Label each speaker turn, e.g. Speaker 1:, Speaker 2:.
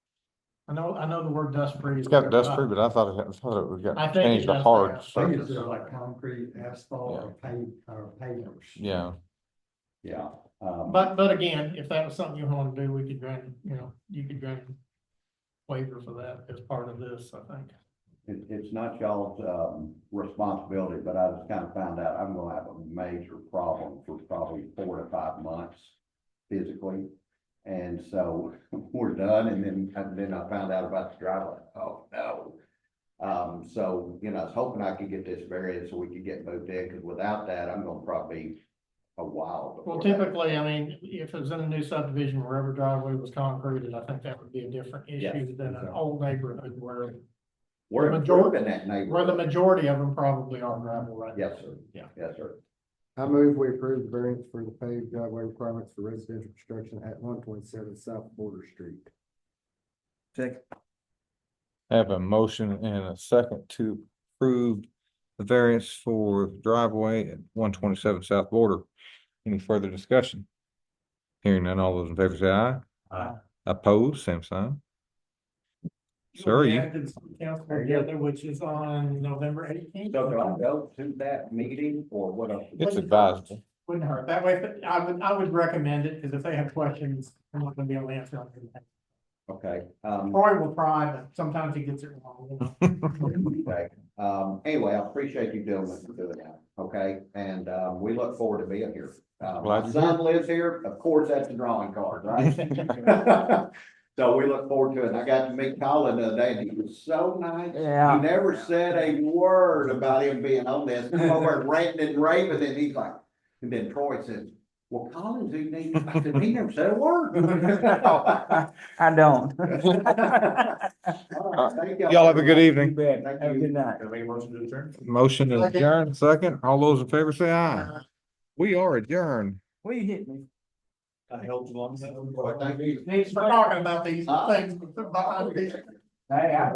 Speaker 1: I know, I know the word dust free.
Speaker 2: It's got dust free, but I thought it, I thought it was
Speaker 1: I
Speaker 2: got
Speaker 1: think it
Speaker 2: changed to
Speaker 1: does
Speaker 2: hard
Speaker 1: that.
Speaker 3: I think
Speaker 2: surface.
Speaker 3: it's just like concrete, asphalt, or pave, or pavers.
Speaker 2: Yeah,
Speaker 3: Yeah. um,
Speaker 1: But, but again, if that was something you wanted to do, we could grant, you know, you could grant waiver for that as part of this, I think.
Speaker 3: It, it's not y'all's, um, responsibility, but I just kind of found out I'm gonna have a major problem for probably four to five months physically. And so we're done, and then, and then I found out about the driveway, oh, no. Um, so, you know, I was hoping I could get this variance so we could get moved in, because without that, I'm gonna probably be a while. before
Speaker 1: Well,
Speaker 3: that.
Speaker 1: typically, I mean, if it was in a new subdivision where every driveway was concreted, I think that would be a different issue
Speaker 3: Yes.
Speaker 1: than an old neighborhood where,
Speaker 3: We're improving that neighborhood.
Speaker 1: where the majority of them probably are gravel right now.
Speaker 3: Yes, sir.
Speaker 1: Yeah.
Speaker 3: Yes, sir.
Speaker 4: I move we approve the variance for the paved driveway requirements for residential construction at one twenty-seven South Border Street.
Speaker 2: I have a motion and a second to approve the variance for driveway at one twenty-seven South Border. Any further discussion? Hearing none, all those in favor say aye.
Speaker 1: Aye.
Speaker 2: Opposed, same sign. Sir, you-
Speaker 1: Council together, which is on November eighteenth.
Speaker 3: So do I go to that meeting or what else?
Speaker 2: it's advisable.
Speaker 1: Wouldn't hurt. That way, if- I would, I would recommend it, because if they have questions, I'm not gonna be able to answer them.
Speaker 3: Okay, um,
Speaker 1: Troy will try, but sometimes he gets it wrong. you know.
Speaker 3: okay, um, anyway, I appreciate you doing what you're doing now, okay? And, um, we look forward to being here. Uh,
Speaker 2: Glad you're
Speaker 3: my son lives here, of course, that's the drawing card, right? So we look forward to it. And I got to meet Colin the other day and he was so nice. He
Speaker 4: Yeah.
Speaker 3: never said a word about him being on this, come over and ranting and raving, and he's like, and then Troy says, well, Colin's who needs, I said, he never said a word.
Speaker 4: I don't.
Speaker 3: All right, thank
Speaker 2: Y'all have a good evening.
Speaker 4: bet.
Speaker 3: Thank Have a you. good
Speaker 4: night.
Speaker 2: Motion to
Speaker 1: Second.
Speaker 2: adjourn, second. All those in favor say aye. We are adjourned.
Speaker 4: Will you hit me?
Speaker 3: Well, Thank Ah. you.
Speaker 1: Thanks for talking about these things behind these.
Speaker 3: Hey, I